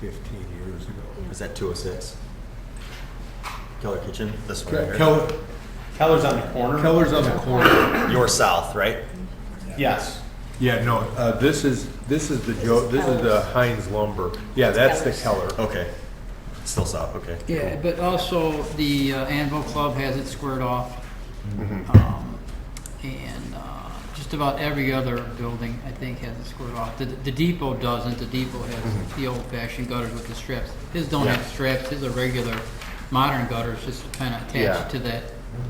15 years ago. Is that 206? Keller Kitchen? This one right Ke- here? Keller, Keller's on the corner. Keller's on the corner. You're south, right? Yes. Yeah, no, uh, this is, this is the Joe, this is the Heinz lumber. Yeah, that's the Keller. Okay. Still south, okay. Yeah, but also the uh, Anvil Club has it squared off. Mm-hmm. Um, And uh, just about every other building, I think, has it squared off. The the depot doesn't, the depot has the old-fashioned gutters with the strips. His don't have Mm-hmm. Yeah. strips, his are regular, modern gutters, just kind of Yeah. attached to that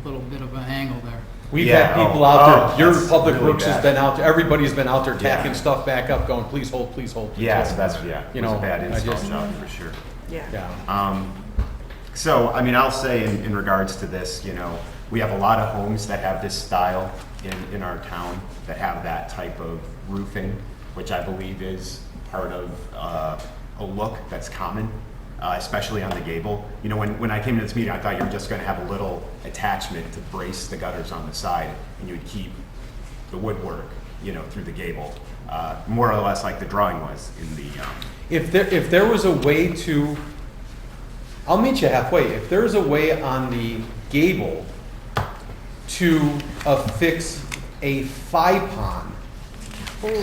little bit of an angle there. We've Yeah, had people oh, out there, oh, your that's public really works has bad. been out, there. everybody's been out there Yeah. tacking stuff back up, going, please hold, please hold. please Yeah, hold." so that's, yeah, You it was know, a bad I install just- job for sure. Yeah. Um, so, I mean, I'll say in, in regards to this, you know, we have a lot of homes that have this style in, in our town that have that type of roofing, which I believe is part of uh, a look that's common, uh, especially on the gable. You know, when, when I came to this meeting, I thought you were just going to have a little attachment to brace the gutters on the side, and you would keep the woodwork, you know, through the gable, uh, more or less like the drawing was in the. Um, If there, if there was a way to, I'll meet you halfway, if there is a way on the gable to affix a FIPON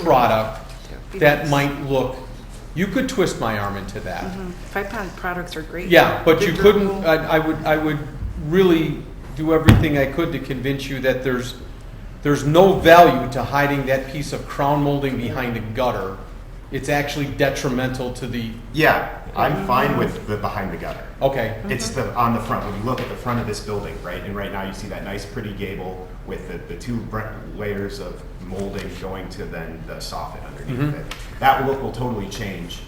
product that might look, you could twist my arm into that. Hmm. Five pound products are great. Yeah, but you They're couldn't, durable. I, I would, I would really do everything I could to convince you that there's, there's no value to hiding that piece of crown molding behind a gutter. It's actually detrimental to the, Yeah, I'm fine with the behind the gutter. okay, It's the, on the front, when you look at the front of this building, right, and right now you see that nice pretty gable with the, the two br- layers of molding going to then the soffit Mm-hmm. underneath it. That look will totally change,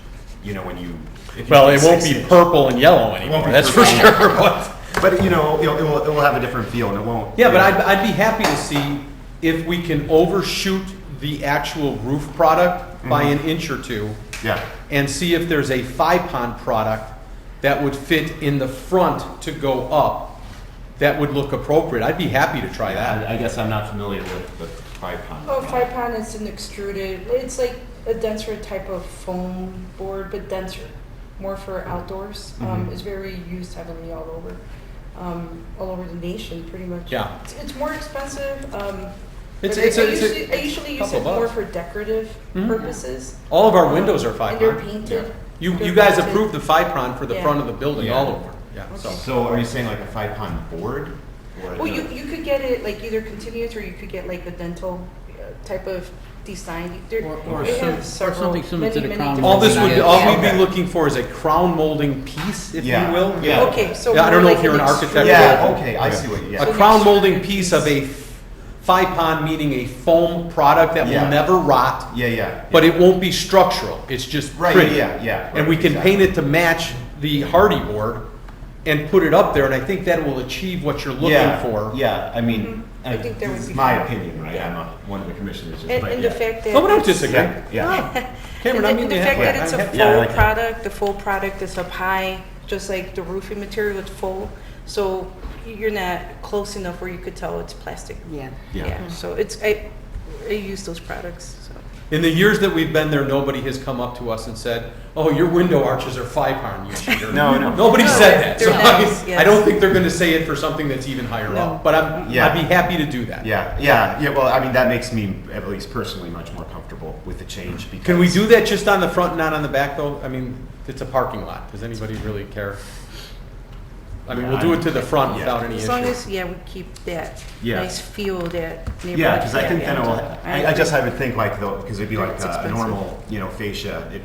you know, when you. if you well, put it won't six be inch- purple and yellow won't anymore, be that's for purple. sure, but. But, you know, it'll, it'll, it'll have a different feel and it won't. Yeah, you but know, I'd, I'd be happy to see if we can overshoot the actual roof product by an inch or two. Yeah, and see if there's a FIPON product that would fit in the front to go up that would look appropriate. I'd be happy to try that. I, I guess I'm not familiar with the tripod. Oh, five pound is an extruded, it's like a denser type of foam board, but denser, more for outdoors. Um, Mm-hmm. Mhm. it's very used heavily all over, um, all over the nation, pretty much. Yeah. It's, it's more expensive, um, It's- but I it's a- I it's a usually, I usually use couple it more bucks. for decorative Mhm. purposes. All of our windows are And they're FIPON. painted. You, They're you guys painted. approved the FIPON for the Yeah. front of the building all Yeah. over. Yeah, so. So are you saying like a five pound board? or Well, the- you, you could get it like either continuous or you could get like a dental uh, type of design. There- Or- or they some- have or several- something similar to many, the many crown All this would, different all designs. we'd be looking for is a crown molding piece, if you Yeah. will. Yeah. Okay, so. Yeah, I more don't know like if you're an architect. Yeah, okay, I see what, you- yeah. A crown molding piece of a FIPON, meaning a foam product that will Yeah. never rot. Yeah, yeah. But it won't be structural, it's just Right, pretty. yeah, yeah, And we right, can paint exactly. it to match the hardy board and put it up there, and I think that will achieve what you're looking yeah, for. Yeah, I mean, uh, Mhm. I think there would this is be- my opinion, right? Yeah. I'm a, one of the commissioners. just- And, but and yeah. the Oh. fact that. No, we don't it's- disagree. Yeah, yeah. No. And Cameron, the- I mean, and the yeah. fact that Yeah, it's I a have- yeah, I full like that. product, the full product is up high, just like the roofing material is full. So you're not close enough where you could tell it's plastic. Yeah. Yeah. So it's, I, I use those products, so. In the years that we've been there, nobody has come up to us and said, oh, your window arches are five iron, you cheater. No, no. Nobody No, said that, so they're nice, I- I yes. don't think they're gonna say it for something that's even higher No. up, but I'm, I'd be Yeah. happy to do that. Yeah, yeah, yeah. Well, I mean, that makes me, at least personally, much more comfortable with the change because. Can we do that just on the front, not on the back, though? I mean, it's a parking lot, does anybody really care? I mean, we'll do it to the front Yeah. without any issue. As long as, yeah, we keep that Yeah. nice feel, that neighborhood. Yeah, because I think then it will, yeah. I, I just, I would think like though, because it'd be like It's uh, a expensive. normal, you know, fascia, it,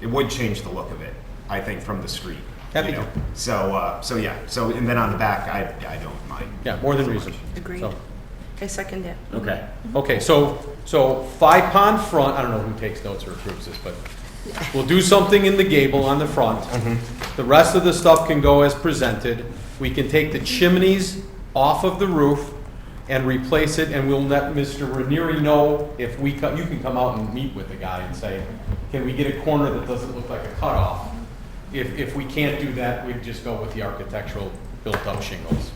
it would change the look of it, I think, from the street. you Happy to. know? So, uh, so yeah, so, and then on the back, I, I don't mind. Yeah, more than reason. Agreed. So, I second that. Okay. Okay, so, so five pond front, I don't know who takes notes or approves this, but we'll do something in the gable on the front. Mm-hmm. The rest of the stuff can go as presented. We can take the chimneys off of the roof and replace it, and we'll let Mr. Ranieri know if we, co- you can come out and meet with the guy and say, can we get a corner that doesn't look like a cutoff? If, if we can't do that, we'd just go with the architectural built-up shingles.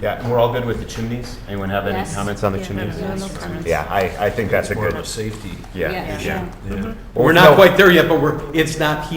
Yeah, and we're all good with the chimneys? Anyone have any Yes. comments on the Yeah, chimneys? no, no comments. Yeah, I, I think that's a More of good, safety. yeah. Yeah. Yeah. Yeah. Well, We're no- not quite there yet, but we're, it's not healing.